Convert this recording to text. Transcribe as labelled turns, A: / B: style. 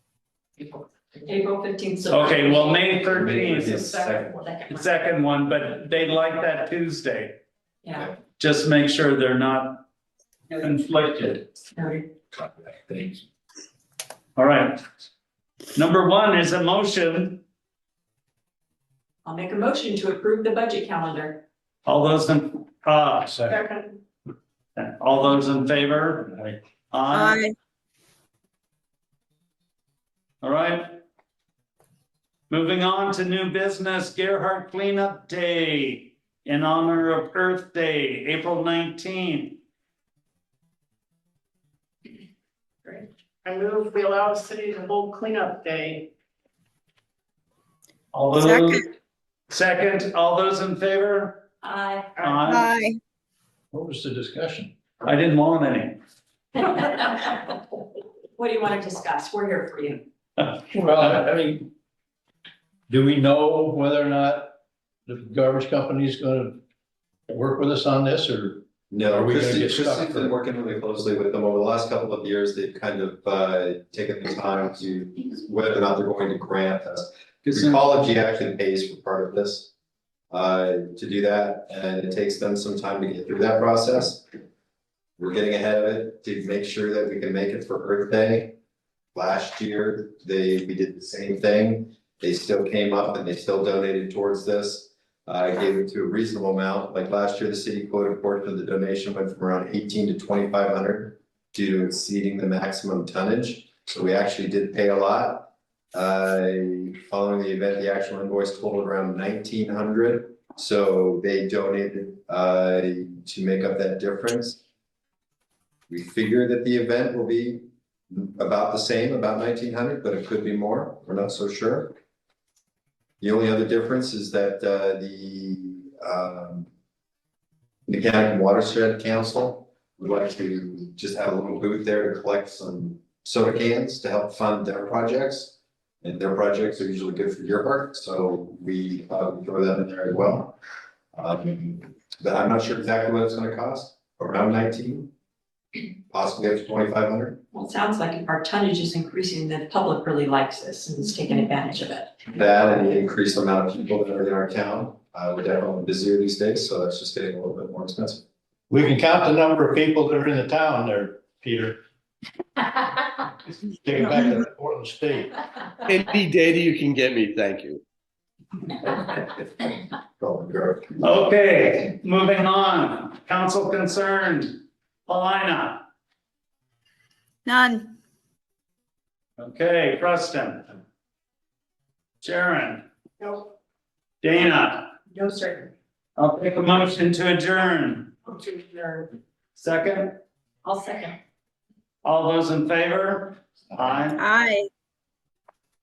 A: April fifteenth.
B: Okay, well, May
C: May
B: thirteenth
C: is-
B: is
A: Second one.
B: the second one, but they like that Tuesday.
A: Yeah.
B: Just make sure they're not conflicted.
A: noted.
C: Contact, thank you.
B: All right. Number one is a motion.
A: I'll make a motion to approve the budget calendar.
B: All those in, uh,
A: Second.
B: all those in favor? Aye.
D: Aye.
B: All right. Moving on to new business, Gerhart Cleanup Day in honor of Earth Day, April nineteenth.
E: I move we allow the city to hold cleanup day.
B: All those,
D: Second.
B: second, all those in favor?
A: Aye.
B: Aye.
D: Aye.
C: What was the discussion?
B: I didn't want any.
A: What do you want to discuss? We're here for you.
C: Well, I mean, do we know whether or not the garbage company is gonna work with us on this or? Are
F: No,
C: we gonna
F: Christie,
C: get stuck
F: Christie's
C: for-
F: been working really closely with them over the last couple of years, they've kind of uh taken the time to whether or not they're going to grant us. Ecology actually pays for part of this uh to do that, and it takes them some time to get through that process. We're getting ahead of it to make sure that we can make it for Earth Day. Last year, they, we did the same thing, they still came up and they still donated towards this. I gave it to a reasonable amount, like last year, the city quoted portion of the donation went from around eighteen to twenty-five hundred due to exceeding the maximum tonnage, so we actually did pay a lot. Uh, following the event, the actual invoice totaled around nineteen hundred, so they donated uh to make up that difference. We figure that the event will be about the same, about nineteen hundred, but it could be more, we're not so sure. The only other difference is that uh, the um, Mechanic and Watershed Council would like to just have a little booth there to collect some soda cans to help fund their projects. And their projects are usually good for your park, so we uh, throw that in there as well. Um, But I'm not sure exactly what it's gonna cost, around nineteen, possibly up to twenty-five hundred.
A: Well, it sounds like if our tonnage is increasing, the public really likes this and is taking advantage of it.
F: That and the increased amount of people that are in our town, uh, we're definitely busier these days, so that's just getting a little bit more expensive.
C: We can count the number of people that are in the town there, Peter, taking back to Portland State.
G: Any data you can get me, thank you.
F: Golden Grove.
B: Okay, moving on. Council concerned, Paulina.
D: None.
B: Okay, Preston. Sharon,
E: No,
B: Dana,
E: no, sir.
B: I'll take a motion to adjourn.
E: I'm too nervous.
B: Second,
A: I'll second.
B: all those in favor? Aye.
D: Aye.